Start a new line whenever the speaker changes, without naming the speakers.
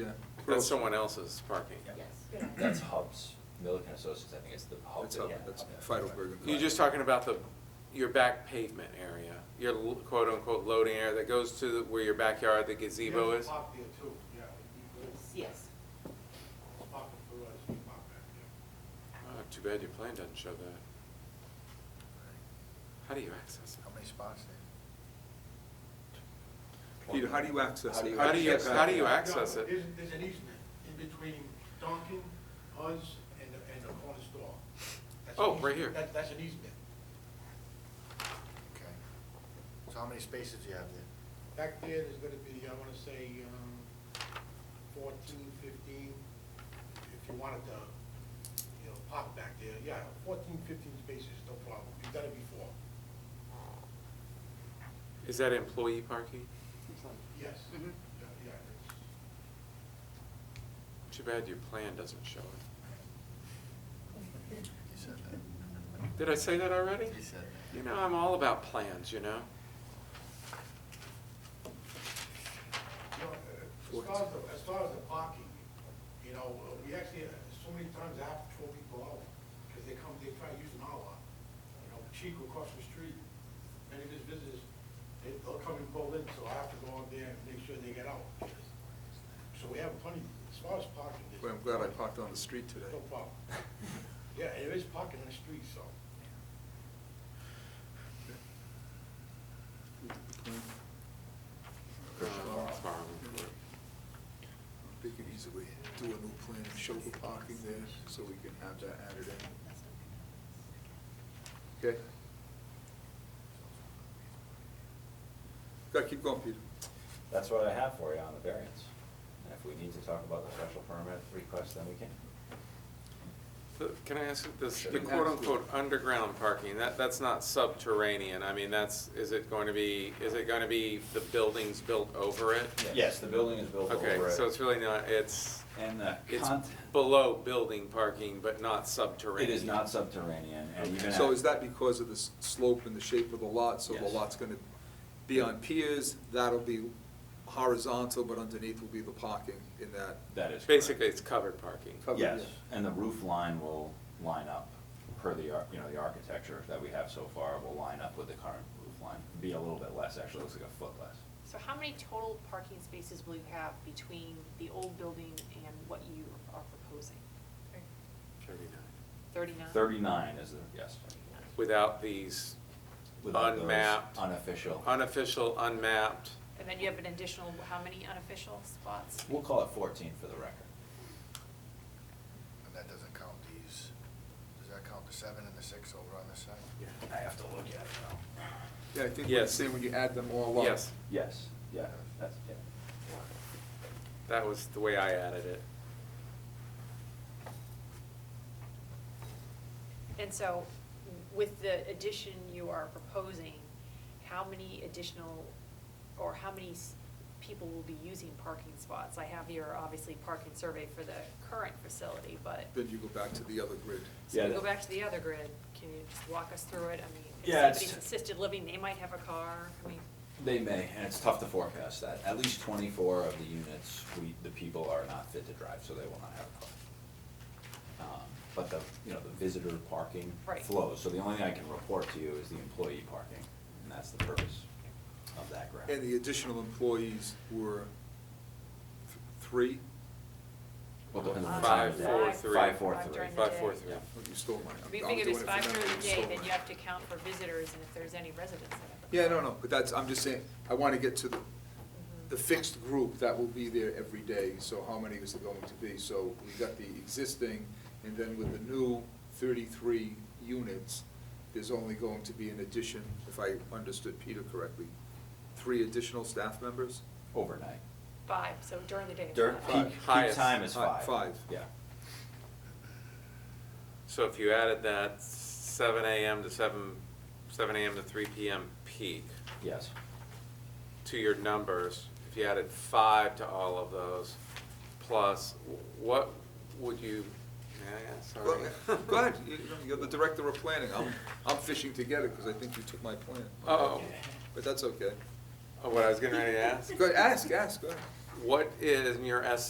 Yeah.
That's someone else's parking.
Yes.
That's Hubs, Milliken Associates, I think it's the Hub.
That's Hub,
Oh, yeah,
that's
Hub.
Feidelberg.
You're just talking about the, your back pavement area, your l- quote-unquote loading area that goes to the- where your backyard, the gazebo is? Oh,
Park there too, yeah, you could
Yes.
park it for us, you park back there.
Oh, Too bad your plan doesn't show that. How do you access
How many spots there?
Peter, how do you access
How do
it?
it?
you
How do you,
access
how do you
that?
access
No,
it?
There's, there's an easement in between Dunkin', us, and the, and the corner store. That's an
Oh, right
easement.
here.
That, that's an easement.
Okay. So how many spaces do you have there?
Back there, there's gonna be, I wanna say, um, fourteen, fifteen, if you wanted to, you know, park back there, yeah, fourteen, fifteen spaces, no problem, we've done it before,
Is that employee parking?
yes.
Mhm.
Yeah, yeah, it's-
Too bad your plan doesn't show it.
He said that.
Did I say that already?
He said that.
You know, I'm all about plans, you know?
You know, uh, As far as, the- as far as the parking, you know, uh, we actually, uh, so many times I have to throw people out, because they come, they try to use an hour. You know, Chico across the street, many of his visitors, they, they'll come and pull in, so I have to go out there and make sure they get out. So we have plenty, as far as parking. there's-
Well, I'm glad I parked on the street today.
No problem. Yeah, there is parking on the street, so.
Uh,
Tomorrow.
it's borrowing for it.
They could easily do a new plan and show the parking there, so we can have that added in. Okay? Go, keep going, Peter.
That's what I have for you on the variance. And if we need to talk about the special permit request, then we can.
The- Can I ask, you this,
Sure.
the quote-unquote underground parking, that, that's not subterranean, I mean, that's, is it going to be, is it going to be the buildings built over it?
Yes, the building is built over
Okay,
it.
so it's really not, it's,
And the
it's
cont-
below building parking, but not
It
subterranean?
is not subterranean, and you're gonna.
So is that because of the s- slope and the shape of the lot, so the
Yes.
lot's gonna be on piers, that'll be horizontal, but underneath will be the parking in that?
That is correct.
Basically, it's covered parking.
covered,
Yes,
yeah.
and the roof line will line up per the, ar- you know, the architecture that we have so far will line up with the current roof line. Be a little bit less, actually, looks like a foot less.
So how many total parking spaces will you have between the old building and what you are proposing?
Thirty-nine.
Thirty-nine?
Thirty-nine is the, yes.
Without these
Without those
unmapped.
unofficial-
Unofficial, unmapped.
And then you have an additional, how many unofficial spots?
We'll call it fourteen for the record.
And that doesn't count these, does that count the seven and the six over on this side?
I have to look at it now.
Yeah, I think what you
Yes.
say when you add them all up.
Yes,
Yes, yeah, that's, yeah.
that was the way I added it.
And so with the addition you are proposing, how many additional, or how many s- people will be using parking spots? I have your, obviously, parking survey for the current facility, but.
Then you go back to the other grid.
So
Yeah,
we go
that-
back to the other grid, can you just walk us through it? I mean, if
Yeah, it's-
somebody's assisted living, they might have a car, I mean,
They may, and it's tough to forecast that. At least twenty-four of the units, we, the people are not fit to drive, so they will not have a car. Um, But the, you know, the visitor parking
Right.
flows, so the only thing I can report to you is the employee parking, and that's the purpose of that graph.
And the additional employees were th- three?
Well, depends on the time
Five,
of day.
four, three.
Five, four,
Uh, Five
three.
during the
Five,
day.
four, three.
Oh, You stole mine.
if you
I'm
think
doing
it's
for
five
them,
during the
you
day,
stole
then
mine.
you have to count for visitors and if there's any residents that have a
Yeah,
car.
no, no, but that's, I'm just saying, I want to get to the, the fixed group that will be there every day, so how many is it going to be? So we got the existing, and then with the new thirty-three units, there's only going to be an addition, if I understood Peter correctly, three additional staff members?
Overnight.
Five, so during the day.
During
five.
peak,
Five.
peak
Highest.
time is
Hi-
five.
five.
Yeah.
So if you added that seven AM to seven, seven AM to three PM peak
Yes.
to your numbers, if you added five to all of those, plus, what would you, yeah, sorry.
Go go ahead, You- you're the director of planning, I'm, I'm fishing together, because I think you took my plan.
Oh,
But that's okay.
oh, what I was getting ready to ask?
Go, ask, ask, go ahead.
What is, in your estimate,